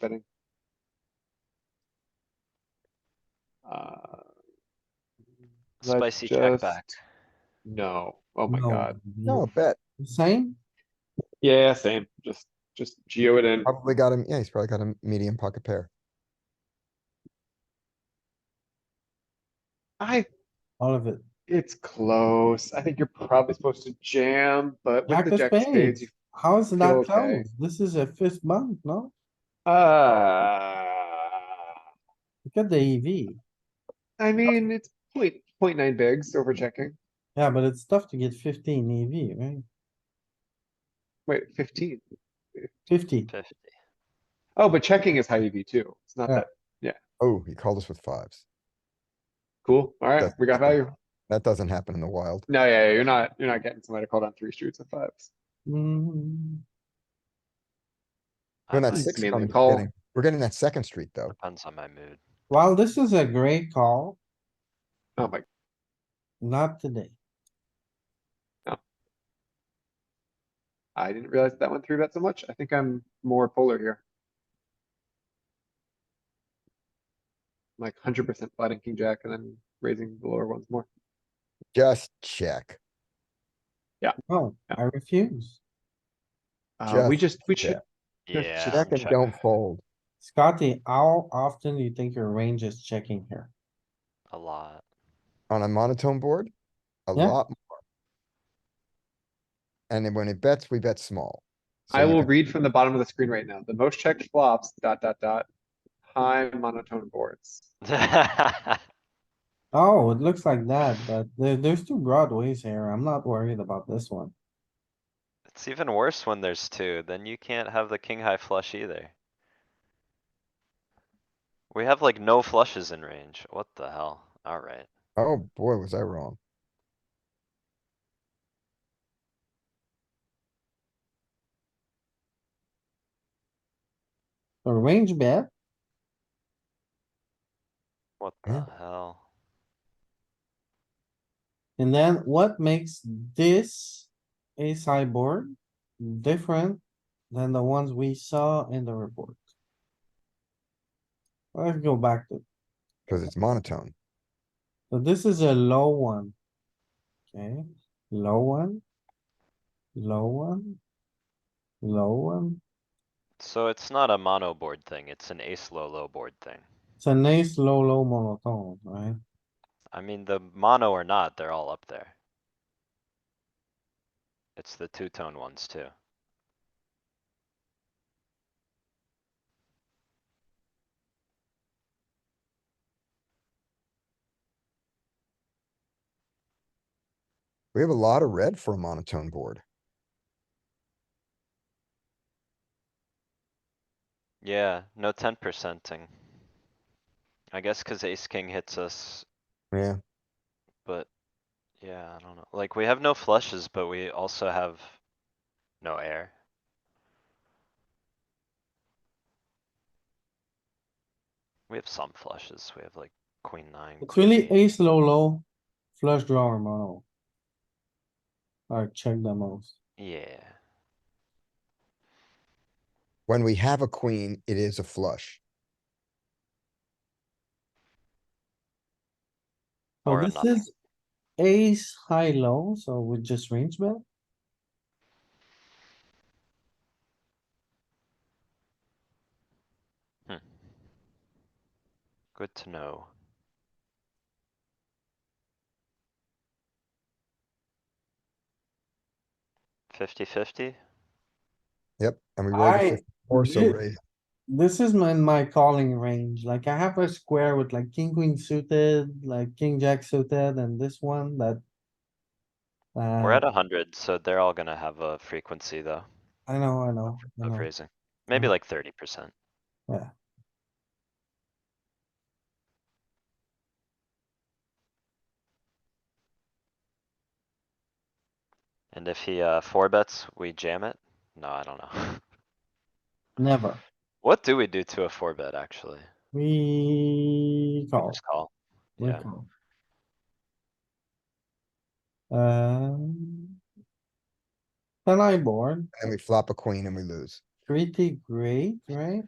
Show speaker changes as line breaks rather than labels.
betting. Uh, Let's
Spicy check
just-
back.
no, oh my
No,
god,
No, bet.
Same?
yeah, same, just, just geo it in,
Probably got him, yeah, he's probably got a medium pocket pair.
I,
All of it.
it's close, I think you're probably supposed to jam, but with
Jack
the
of
jack of spades,
spades. How is it
Feel
not
okay.
close? This is a fifth month, no?
you, uh.
Look at the E EV.
I mean, it's point, point nine bigs over checking,
Yeah, but it's tough to get fifteen EV, right?
wait, fifteen.
Fifty.
Fifty.
Oh, but checking is high EV too, it's not
Yeah.
that,
Oh, he called us with fives.
cool, alright,
That's-
we got value,
That doesn't happen in the wild.
no, yeah, yeah, you're not, you're not getting somebody to call down three streets and fives.
Mm,
When
I
It's
that
might-
six
mainly
comes, we're
call.
getting- we're getting that second street though.
Depends on my mood.
Well, this is a great call,
Oh my,
not today.
I didn't realize that went through that so much, I think I'm more polar here. Like hundred percent flatting king jack and then raising the lower ones more,
Just check.
No, I refuse.
uh, we
Just
just, we should,
check. Just
Yeah.
Check and
check.
don't fold.
Scotty, how often do you think your range is checking here?
A lot.
On a monotone board, a
Yeah.
lot more. And then when it bets, we bet small. So
I
you
will
can-
read from the bottom of the screen right now, the most checked flops, dot, dot, dot. High monotone boards,
Oh, it looks like that, but there, there's two broadways here. I'm not worried about this one.
It's even worse when there's two, then you can't have the king high flush either. We have like no flushes in range. What the hell? Alright.
Oh, boy, was I wrong.
A range bet,
What
Yeah.
the hell?
and then what makes this a sideboard different than the ones we saw in the report? Let's go back to,
Cause it's monotone.
so this is a low one. Okay, low one. Low one. Low one.
So it's not a mono board thing, it's an ace low low board thing.
It's a nice low, low monotone, right?
I mean, the mono or not, they're all up there. It's the two tone ones too.
We have a lot of red for a monotone board.
Yeah, no ten percenting. I guess cuz ace king hits us,
Yeah,
but yeah, I don't know. Like we have no flushes, but we also have no air. We have some flushes. We have like queen nine.
It's
queen
really
eight.
ace low, low flush drawer mono. Alright, check the most.
Yeah,
when we have a queen, it is a flush.
So
Or a
this
nothing.
is ace high low, so we just range bet.
good to know. Fifty fifty?
Yep, and we rolled a
I,
54, so
did-
raise.
this is my, my calling range, like I have a square with like king, queen suited, like king, jack suited, and this one that.
We're at
Uh,
a hundred, so they're all gonna have a frequency though
I know, I know, I
of
know.
raising. Maybe
Mhm.
like thirty percent. And if he uh four bets, we jam it? No, I don't know.
never.
What do we do to a four bet actually?
We
We
call.
Just call.
we
Yeah,
call. Um. Then I board,
and we flop a queen and we lose.
pretty great, right?